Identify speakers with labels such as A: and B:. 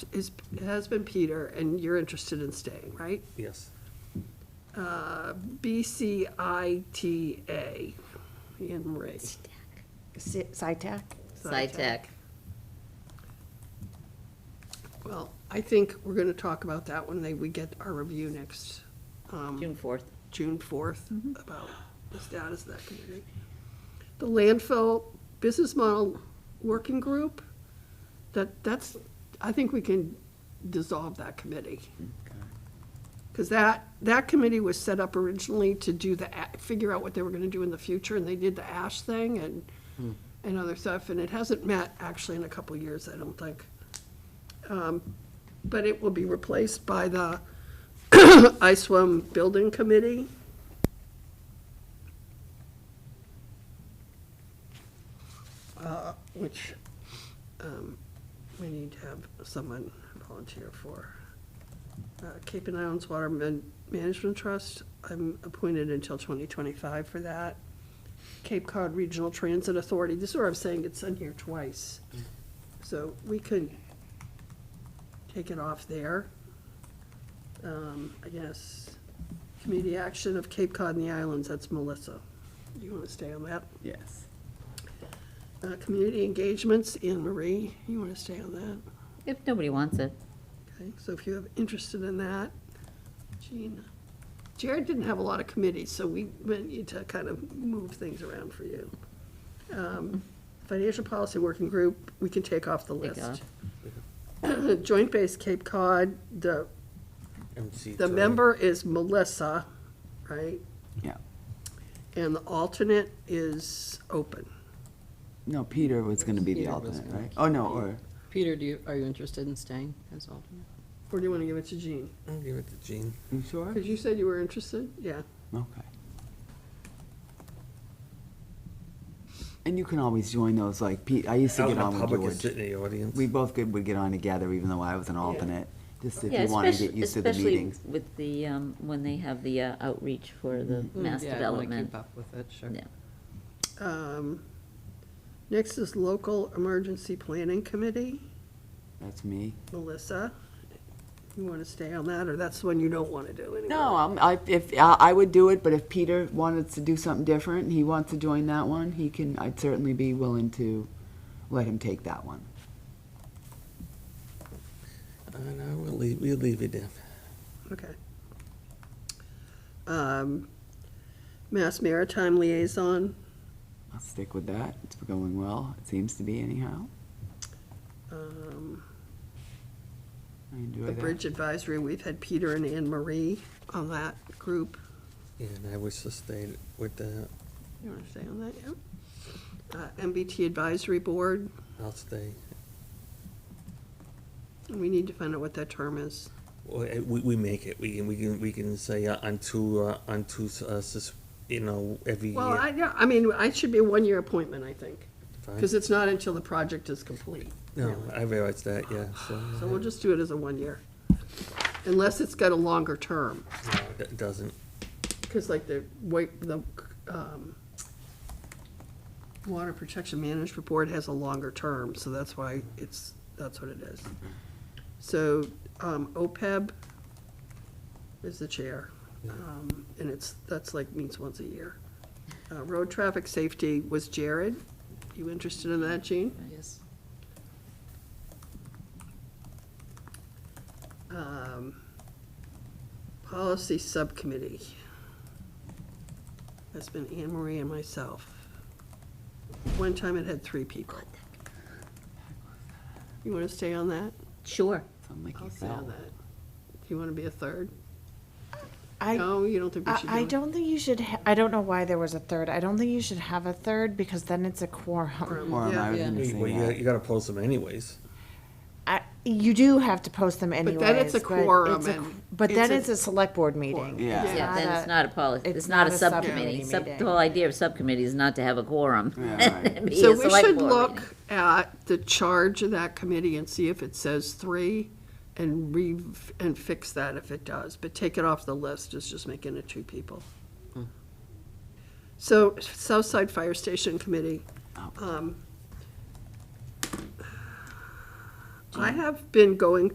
A: is, has been Peter, and you're interested in staying, right?
B: Yes.
A: BCITA, Ian Marie.
C: Si- SciTech?
D: SciTech.
A: Well, I think we're gonna talk about that when they, we get our review next, um,
D: June 4th.
A: June fourth, about the status of that committee. Mm-hmm. The landfill business model working group, that, that's, I think we can dissolve that committee. Because that, that committee was set up originally to do the, a- figure out what they were gonna do in the future, and they did the ash thing and, and other stuff, and it hasn't met actually in a couple of years, I don't think. Um, But it will be replaced by the ISWAM Building Committee. uh, Which, um, we need to have someone volunteer for. Uh, Cape and Islands Water Man- Management Trust, I'm appointed until 2025 for that. Cape Cod Regional Transit Authority, this is where I'm saying it's in here twice. So we could take it off there. Um, I guess, Community Action of Cape Cod and the Islands, that's Melissa. You want to stay on that?
E: Yes.
A: Uh, Community Engagements, Anne Marie, you want to stay on that?
D: If nobody wants it.
A: Okay, so if you have interested in that, Gina. Jared didn't have a lot of committees, so we we need to kind of move things around for you. Um, Financial Policy Working Group, we can take off the
D: Take
A: list. Joint Base Cape Cod, the, the member is Melissa, right?
E: Yeah.
A: And the alternate is open.
E: No, Peter was going to be the
F: Peter was
E: alternate,
F: gonna
E: right?
F: keep
E: Oh, no,
F: it.
E: or,
F: Peter, do you, are you interested in staying as alternate?
A: Or do you want to give it to Jean?
B: I'll give it to Jean.
E: you sure?
A: Because you said you were interested, yeah.
E: Okay. And you can always join those, like, Pete, I used to get on
B: public
E: with
B: is
E: George.
B: sitting in the audience.
E: We both could, would get on together, even though I was an alternate, just if
D: Yeah,
E: you want to
D: especially,
E: get used to the
D: especially
E: meetings.
D: with the, um, when they have the uh, outreach for the
E: Mm-hmm.
D: mass
F: Yeah, I wanna
D: development.
F: Keep up with it, sure.
D: Yeah.
A: Um, Next is Local Emergency Planning Committee,
E: That's me.
A: Melissa. You want to stay on that, or that's the one you don't want to do anyway?
E: No, um, I, if, I I would do it, but if Peter wanted to do something different, and he wants to join that one, he can, I'd certainly be willing to let him take that one.
B: I know, we'll leave, we'll leave it there.
A: Okay. Um, Mass Maritime Liaison,
E: I'll stick with that. It's going well. It seems to be anyhow.
A: um,
E: I enjoy
A: the
E: that.
A: Bridge Advisory, we've had Peter and Anne Marie on that group.
B: And I wish to stay with the,
A: You want to stay on that, yeah? Uh, MBT Advisory Board,
B: I'll stay.
A: we need to find out what that term is.
B: Well, eh, We, we make it, we can, we can, we can say uh, unto, uh, unto, uh, sus- you know, every
A: Well, I,
B: year.
A: yeah, I mean, I should be a one-year appointment, I think, because
B: Fine.
A: it's not until the project is complete.
B: No,
A: really.
B: I realize that, yeah, so. uh,
A: So we'll just do it as a one-year, unless it's got a longer term,
B: No, It doesn't,
A: because like the, wa- the, um, Water Protection Management Board has a longer term, so that's why it's, that's what it is. So, um, OPEB is the chair, um, and it's, that's like, meets once a year. Uh, Road Traffic Safety was Jared, you interested in that, Gene?
F: Yes.
A: um, Policy Subcommittee. That's been Anne Marie and myself. One time it had three people. You want to stay on that?
D: Sure.
E: Something like
A: I'll stay on
E: yourself.
A: that. Do you want to be a third?
C: I,
A: No, you don't think we should do it?
C: I I don't think you should, ha- I don't know why there was a third. I don't think you should have a third because then it's a quorum.
A: Quorum.
E: Or am I
F: Yeah.
E: going to
B: well,
E: say
B: you, gotta-
E: that?
B: you gotta post them anyways.
C: I- You do have to post them
A: then
C: anyways.
A: it's a
C: but
A: quorum
C: it's a-
A: and
C: But
A: it's
C: then
A: a-
C: it's a select board meeting.
A: Quorum.
E: Yeah.
D: Yeah, then it's
C: a-
D: not a policy,
C: it's
D: it's not a
C: not a
D: subcommittee.
C: subcommittee
D: Sub- The
C: meeting.
D: whole idea of subcommittee is not to have a quorum.
E: Yeah, right.
D: It'd be
A: So
D: a
A: we
D: select
A: should
D: board
A: look
D: meeting.
A: at the charge of that committee and see if it says three and re, and fix that if it does, but take it off the list, is just making it two people. So Southside Fire Station Committee,
D: Oh.
A: um, I have been going